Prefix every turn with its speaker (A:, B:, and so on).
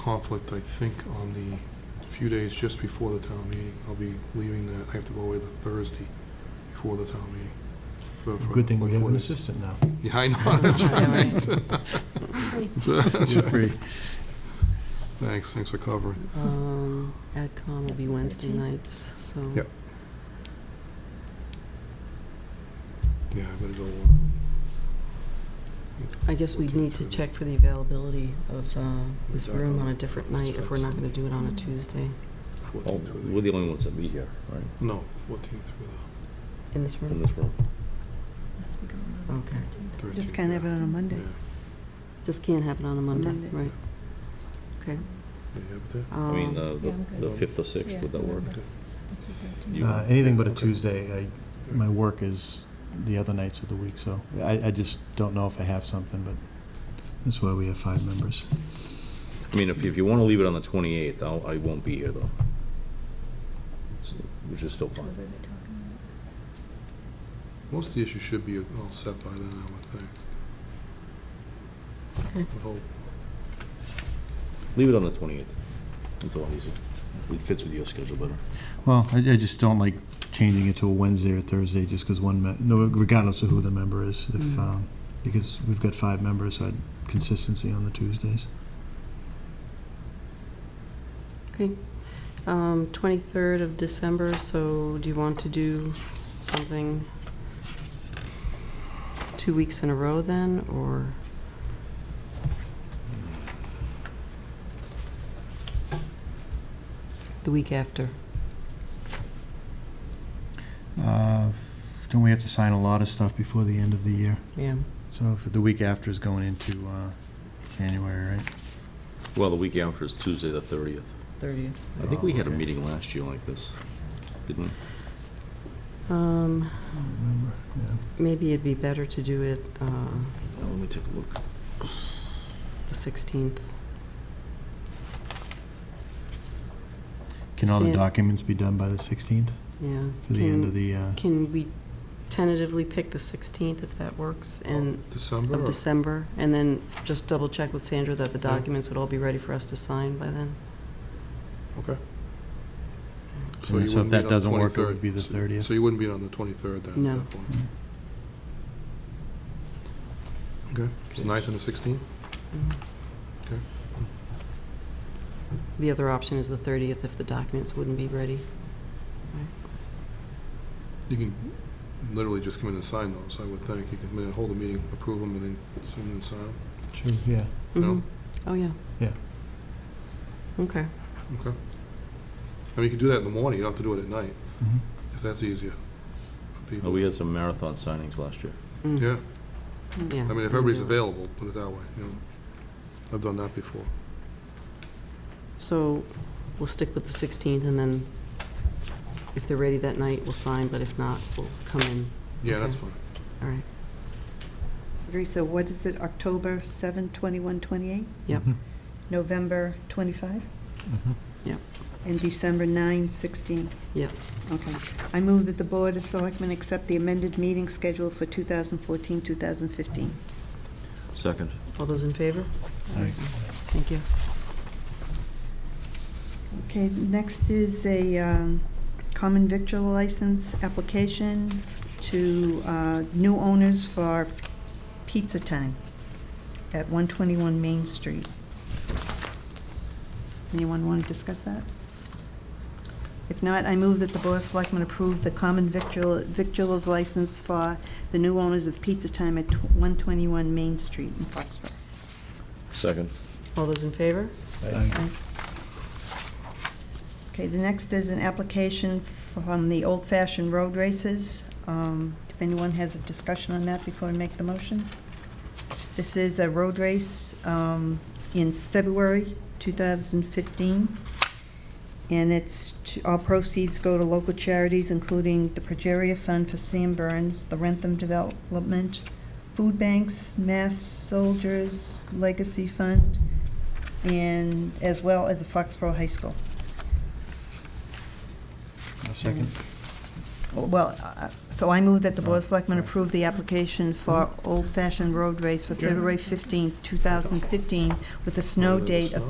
A: conflict, I think, on the few days just before the town meeting. I'll be leaving that, I have to go away the Thursday before the town meeting. for- for-
B: Good thing we
A: for
B: have
A: four
B: an
A: days.
B: assistant now.
A: Yeah, I know, that's right. That's right, that's
B: You're
A: right.
B: free.
A: Thanks, thanks for covering.
C: Um, AdCom will be Wednesday nights, so.
A: Yep. Yeah, I better go. uh,
C: I guess we'd need to check for the availability of uh, this room on a different night if we're not going to do it on a Tuesday
A: 14th
D: Oh,
A: through
D: we're the only ones that meet here, right,
A: No, 14th through the
C: in this
D: in
C: room.
D: this room.
C: Okay.
A: 13th.
E: Just can't have it on a Monday.
A: Yeah,
C: Just can't have it on a Monday,
E: Monday.
C: right? Okay.
A: you have it there?
D: I mean,
C: um,
F: Yeah,
D: uh, the-
F: I'm
D: the
F: good.
D: fifth or sixth, would that work?
F: That's it there, too.
D: You-
B: Uh, Anything but a
A: Okay.
B: Tuesday. I- My work is the other nights of the week, so I I just don't know if I have something, but that's why we have five members.
D: I mean, if, if you want to leave it on the 28th, I'll, I won't be here, though. It's- Which is still fine.
F: What were they talking
A: Most of the issues should be all set by then, I would think.
C: Okay.
A: I hope.
D: Leave it on the 28th. It's a lot easier. It fits with your schedule better.
B: Well, I I just don't like changing it to a Wednesday or Thursday, just because one, me- no, regardless of who the member is, if,
C: Mm.
B: um, because we've got five members, so I'd consistency on the Tuesdays.
C: Okay. Um, 23rd of December, so do you want to do something two weeks in a row then, or? The week after?
B: Uh, Don't we have to sign a lot of stuff before the end of the year?
C: Yeah.
B: So if the week after is going into uh, January, right?
D: Well, the week after is Tuesday, the 30th.
C: 30th.
D: I think we had a
B: Oh, okay.
D: meeting last year like this, didn't we?
C: Um,
B: I don't remember. Yeah.
C: maybe it'd be better to do it, uh,
D: Now, let me take a look.
C: the 16th.
B: Can all the
C: Sam-
B: documents be done by the 16th
C: Yeah.
B: for the end of
C: Can-
B: the, uh,
C: Can we tentatively pick the 16th if that works? And
A: uh, December
C: of
A: or
C: December, and then just double check with Sandra that the documents would all be ready for us to sign by then.
A: Okay.
B: So if
A: wouldn't
B: that
A: meet on the
B: doesn't work, it
A: 23rd.
B: would be the Mm-hmm.
A: So-
B: 30th?
A: So you wouldn't be on the 23rd then? at
C: No.
A: that point? Okay, so 9th and the 16th? Okay.
C: The other option is the 30th if the documents wouldn't be ready.
A: You can literally just come in and sign those, I would think. You can come in and hold a meeting, approve them, and then sign and sign 'em.
B: Sure, yeah.
A: No?
C: Mhm. Oh, yeah.
B: Yeah.
C: Okay.
E: Mm-hmm.
A: Okay. I mean, you can do that in the morning, you don't have to do it at night,
B: Mhm.
A: if that's easier for
D: Oh,
A: people.
D: we had some marathon signings last year.
C: Mm.
A: Yeah,
C: Yeah.
A: I mean, if everybody's available, put it that way, you know. I've done that before.
C: So we'll stick with the 16th, and then if they're ready that night, we'll sign, but if not, we'll come in.
A: Yeah, that's
C: Okay.
A: fine.
C: All right.
E: Teresa, what is it, October 7, 21, 28?
C: Yep.
B: Mhm.
E: November 25?
B: Mhm.
E: And December 9, 16?
C: Yep.
E: Okay. I move that the Board of Selectmen accept the amended meeting schedule for 2014, 2015.
D: Second.
C: All those in favor?
B: Aye.
C: Thank you.
E: Okay, next is a um, common victual license application to uh, new owners for Pizza Time at 121 Main Street. Anyone want to discuss that? If not, I move that the Board of Selectmen approve the common victual victuals license for the new owners of Pizza Time at 121 Main Street in Foxborough.
D: Second.
C: All those in favor?
B: Aye.
E: Okay, the next is an application from the Old Fashioned Road Races. Um, If anyone has a discussion on that before I make the motion. This is a road race um, in February 2015, and it's, to- all proceeds go to local charities, including the Progeria Fund for Sam Burns, the Rentham Development, Food Banks, Mass Soldiers Legacy Fund, and as well as the Foxborough High School.
B: A second.
E: Well, uh, so I move that the Board of Selectmen
B: Right.
E: approve the application for Old Fashioned Road Race for February 15, 2015, with a snow
A: Under the
E: date of